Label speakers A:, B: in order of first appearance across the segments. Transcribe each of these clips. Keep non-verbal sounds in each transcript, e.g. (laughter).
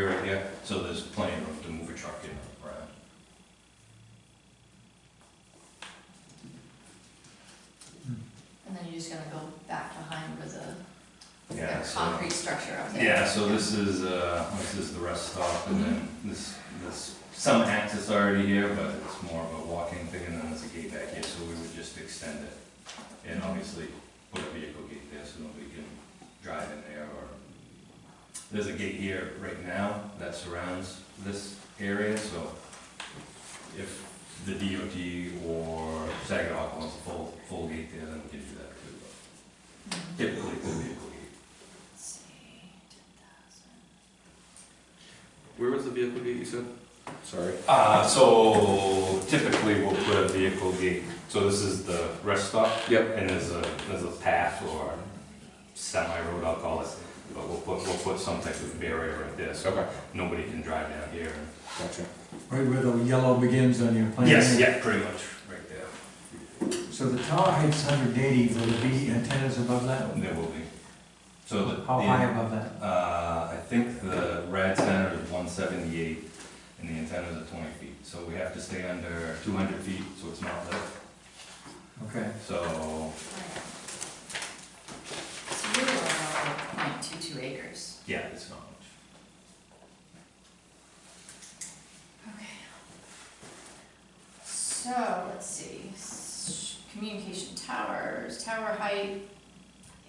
A: Okay. So there's plenty of room to move a truck in and around.
B: And then you're just gonna go back behind with the,
A: Yeah,
B: that
A: so-
B: concrete structure up there.
A: Yeah, so this is, uh, this is the rest stop, and then this, this, some access already here, but it's more of a walking thing, and then there's a gate back here, so we would just extend it. And obviously, put a vehicle gate there, so nobody can drive in there, or, there's a gate here right now that surrounds this area, so if the DOT or Saginaw wants a full, full gate there, then we can do that too.
B: Mhm.
A: but Typically, it's a vehicle gate.
B: Let's see, 10,000.
C: Where was the vehicle gate you said? Sorry.
A: Uh, so typically we'll put a vehicle gate, so this is the rest stop,
C: Yep.
A: and there's a, there's a path or semi-road, I'll call it, but we'll put, we'll put some type of barrier right there, so
C: Okay,
A: nobody can drive down here.
C: gotcha.
D: Right where the yellow begins on your plan.
A: Yes, yeah, pretty much, right there.
D: So the tower height's hundred eighty, will there be antennas above that?
A: There will be. So the.
D: How
A: the-
D: high above that?
A: Uh, I think the rad center is one seventy-eight, and the antennas are twenty feet, so we have to stay under two hundred feet, so it's not lit,
D: Okay,
A: so,
B: So you're going over point two two acres.
A: yeah, it's not much.
B: Okay. So, let's see, s- communication towers, tower height,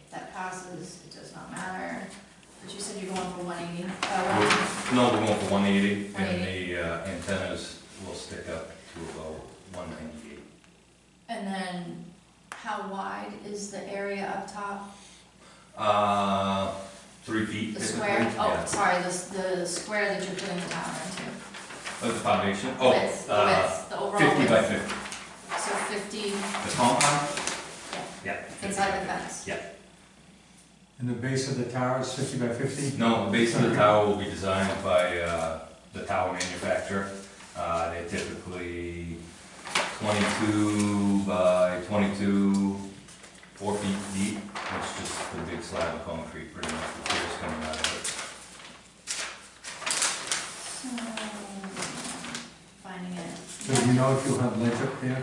B: if that passes, it does not matter. But you said you're going for one eighty, uh,
A: No, we're going for one eighty, and the uh, antennas will stick up to about one ninety-eight.
B: and then how wide is the area up top?
A: Uh, three feet.
B: The
A: typically,
B: square, oh,
A: yeah.
B: sorry, the, s- the square that you're putting the tower into.
A: Of the foundation,
B: The
A: oh,
B: width, the
A: uh,
B: width, the overall
A: fifty by
B: width.
A: fifty,
B: So fifty
A: the compound? Yeah. 50
B: inside the
A: by
B: fence.
D: and the base of the tower is fifty by
A: 50.
D: fifty?
A: No, the base of the tower will be designed by uh, the tower manufacturer. Uh, They're typically twenty-two by twenty-two, four feet deep, It's just the big slab of concrete, pretty much, the piers coming out of it.
B: So, finding
D: So
A: Mm-hmm.
D: do you
B: it.
D: know if you'll have ledge up there?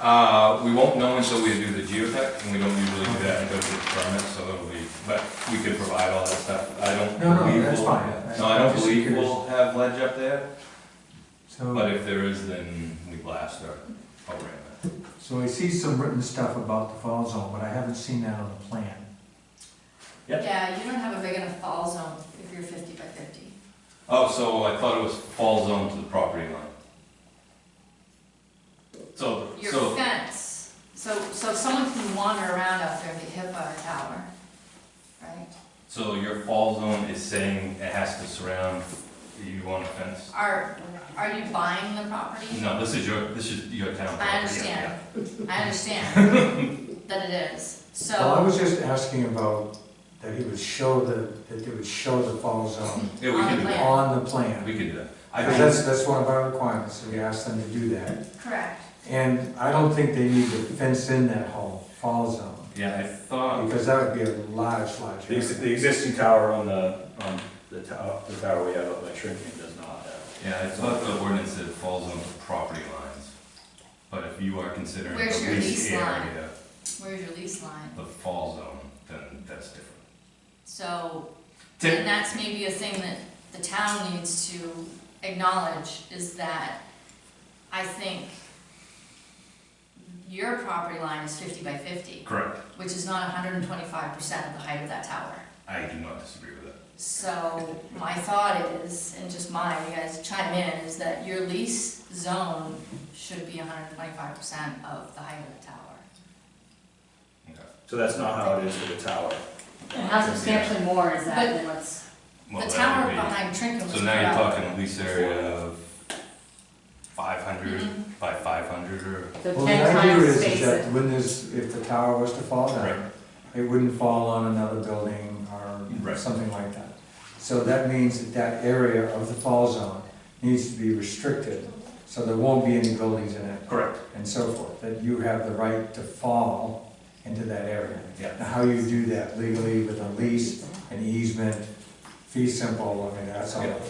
A: Uh, we won't know until we do the geotech, and we don't usually do that until we get the permit, so it'll be, but we could provide all that stuff. I don't
D: No, no,
A: believe
D: that's
A: we'll-
D: fine.
A: No, I don't
D: I'm just
A: believe
D: curious.
A: we'll have ledge up there, but
D: So,
A: if there is, then we blast our, our ramp.
D: so I see some written stuff about the fall zone, but I haven't seen that on the plan.
A: Yep.
B: Yeah, you don't have a big enough fall zone if you're fifty by fifty.
A: Oh, so I thought it was fall zone to the property line. So,
B: Your
A: so,
B: fence, so, so someone can wander around out there and be hit by a tower, right?
A: so your fall zone is saying it has to surround, you want a fence?
B: Are, are you buying the property?
A: No, this is your, this is your town property.
B: I understand, I understand
A: (laughs)
B: that it is,
D: Well, I
B: so.
D: was just asking about that he would show the, that they would show the fall zone
A: Yeah, we can do that,
D: on the plan.
A: we can do that. I
D: Because
A: don't-
D: that's, that's one of our requirements, so we asked them to do that.
B: Correct.
D: And I don't think they need to fence in that whole fall zone.
A: Yeah, I thought,
D: Because that would be a large, large
E: The ex-
D: area.
E: the existing tower on the, on the tower, the tower we have up by Shrinking does not have.
A: yeah, I thought the ordinance said falls on the property lines. But if you are considering the
B: Where's your
A: lease
B: lease line?
A: area,
B: Where's your lease line?
A: the fall zone, then that's different.
B: So
A: Tim,
B: And that's maybe a thing that the town needs to acknowledge, is that I think your property line is fifty by fifty,
A: correct,
B: which is not hundred and twenty-five percent of the height of that tower.
A: I do not disagree with that.
B: So my thought is, and just mine, you guys chime in, is that your lease zone should be hundred and twenty-five percent of the height of the tower.
A: Okay.
E: So that's not how it is with the tower.
F: And How substantially more is
B: But-
F: that than what's,
A: Well,
B: The
A: that
B: tower
A: would be-
B: behind Trinket was
A: So
B: put
A: now you're
B: up.
A: talking a lease area of five hundred
B: Mhm.
A: by five hundred or,
F: the
D: Well,
F: ten
D: the idea
F: times
D: is is
F: space that
D: that when this, if the tower was to fall down,
A: right,
D: it wouldn't fall on another building or
A: Right.
D: something like that. So that means that that area of the fall zone needs to be restricted, so there won't be any buildings in it
A: correct,
D: and so forth, that you have the right to fall into that area.
A: yeah.
D: Now, how you do that legally with a lease, an easement, fee simple, I mean, that's all.
A: Yeah.